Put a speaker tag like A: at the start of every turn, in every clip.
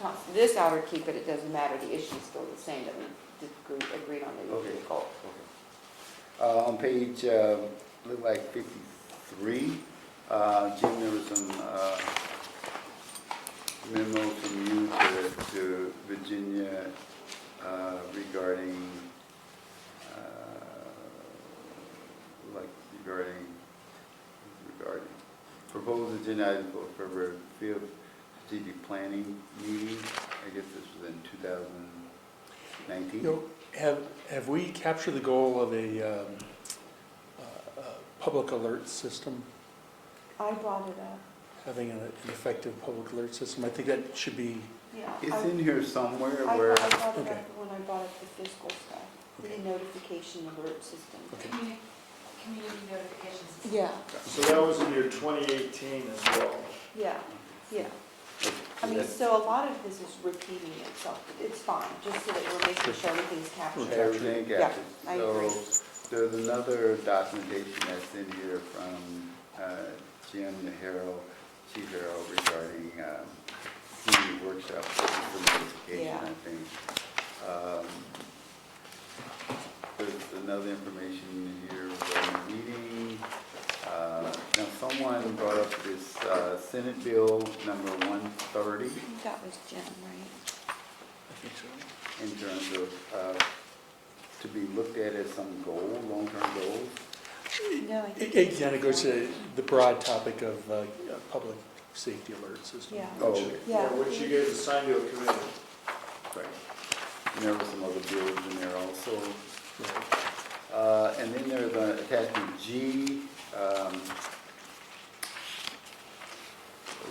A: cons- this I would keep it, it doesn't matter, the issue's still the same that we did agree- agreed on the
B: Okay.
A: vehicle.
B: Uh, On page, uh, look like 53, uh, Jim, there was some uh, memo from you to- to Virginia uh, regarding, uh, like regarding, regarding, proposed agenda item for February 5th strategic planning meeting. I guess this was in 2019?
C: You know, have, have we captured the goal of a, um, uh, uh, public alert system?
A: I brought it up,
C: Having an an effective public alert system? I think that should be,
A: yeah.
B: It's
A: I-
B: in here somewhere
A: I
B: where.
A: brought I brought it
C: Okay.
A: up when I brought up the fiscal stuff, the
C: Okay.
A: notification alert system.
C: Okay.
D: Communi- Community notifications.
A: Yeah,
E: So that was in your 2018 as well.
A: yeah, yeah. I mean, so a lot of this is repeating itself, but it's fine, just so that we're making sure everything's captured.
B: Everything
A: Yeah,
B: captured.
A: I agree.
B: So there's another documentation that's in here from uh, Jim Harrell, Chief Harrell regarding um, community workshop, for notification,
A: Yeah.
B: I think. Um, There's another information here regarding meeting. Uh, Now, someone brought up this uh, Senate Bill number 130
A: I think that was Jim, right?
B: in terms of, uh, to be looked at as some goal, long-term goal.
A: No, I think.
C: A- again, it goes to the broad topic of, uh, a public safety alert system.
A: Yeah.
B: Oh,
C: which-
B: okay.
A: Yeah.
E: Which you guys assigned to a committee.
B: Right. And there were some other bills in there also.
C: yeah.
B: Uh, And then there's uh, attachment G, um,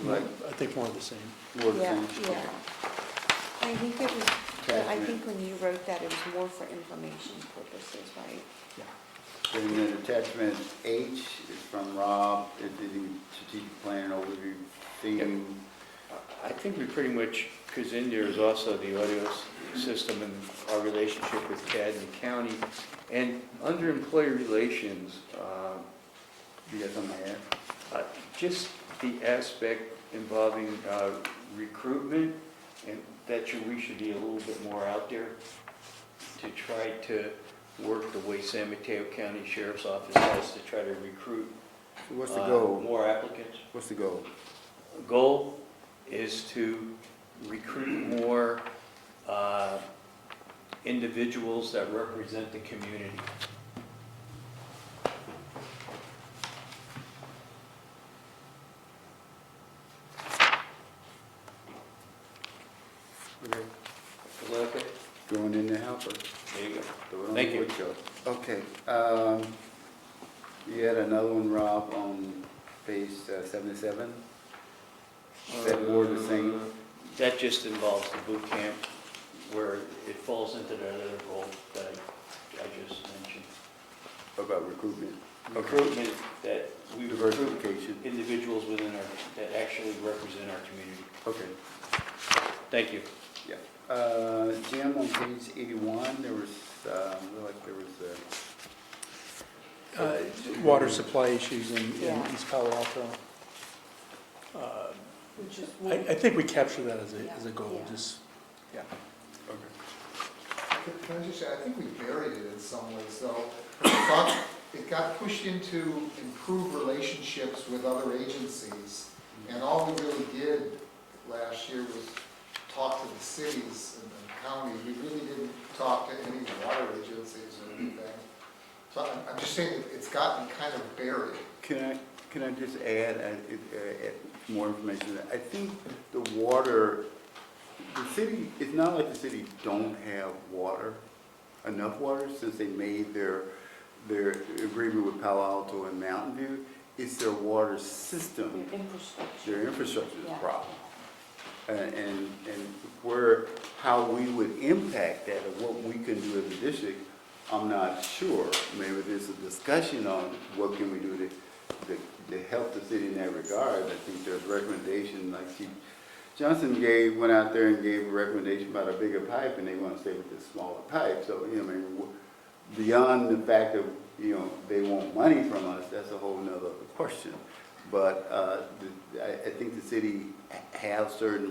B: like,
C: I think more of the same.
B: more
A: Yeah,
B: than.
A: yeah. I think it was, I
B: Attachment.
A: think when you wrote that, it was more for information purposes, right?
C: Yeah.
B: And then attachment H is from Rob, it's the strategic plan overview theme.
F: I think we pretty much, because in there is also the audio s- system and our relationship with CAD and the county. And under employee relations, um,
B: You got something to add?
F: uh, just the aspect involving uh, recruitment, and that you- we should be a little bit more out there to try to work the way San Mateo County Sheriff's Office has to try to recruit.
B: So What's the
F: uh,
B: goal?
F: More applicants
B: What's the goal?
F: goal is to recruit more uh, individuals that represent the community.
B: Okay.
F: Is that okay?
B: Going in to help us.
F: There you go.
B: Throw it on
F: Thank
B: the
F: you.
B: woodchuck. Okay, um, you had another one, Rob, on page uh, seventy-seven? Is that more the same?
F: That just involves the boot camp where it falls into that other goal that I- I just mentioned.
B: About recruitment?
F: Recruitment, that we recruit
B: Diversification,
F: individuals within our, that actually represent our community.
B: okay,
F: Thank you.
B: yeah. Uh, Jim, on page eighty-one, there was, um, like, there was, uh,
C: Uh, Water supply issues in, in
A: Yeah.
C: East Palo Alto. Uh,
A: Which is.
C: I, I think we capture that as a,
A: Yeah.
C: as a goal,
A: Yeah.
C: just, yeah.
G: Can can I just say, I think we buried it in some ways, though. It got- It got pushed into improve relationships with other agencies, and all we really did last year was talk to the cities and the counties. We really didn't talk to any water agencies or anything. So I'm- I'm just saying, it- it's gotten kind of buried.
B: Can I, can I just add, uh, it- uh, add more information? I think the water, the city, it's not like the city don't have water, enough water, since they made their, their agreement with Palo Alto and Mountain View. It's their water system,
A: Your infrastructure.
B: their infrastructure is
A: Yeah.
B: a problem. And, and and where, how we would impact that, or what we can do as a district, I'm not sure. Maybe there's a discussion on what can we do to, to, to help the city in that regard. I think there's recommendation, like Chief Johnson gave, went out there and gave a recommendation about a bigger pipe, and they want to stay with this smaller pipe. So, you know, I mean, wh- beyond the fact of, you know, they want money from us, that's a whole nother question. But, uh, the- I, I think the city ha- have certain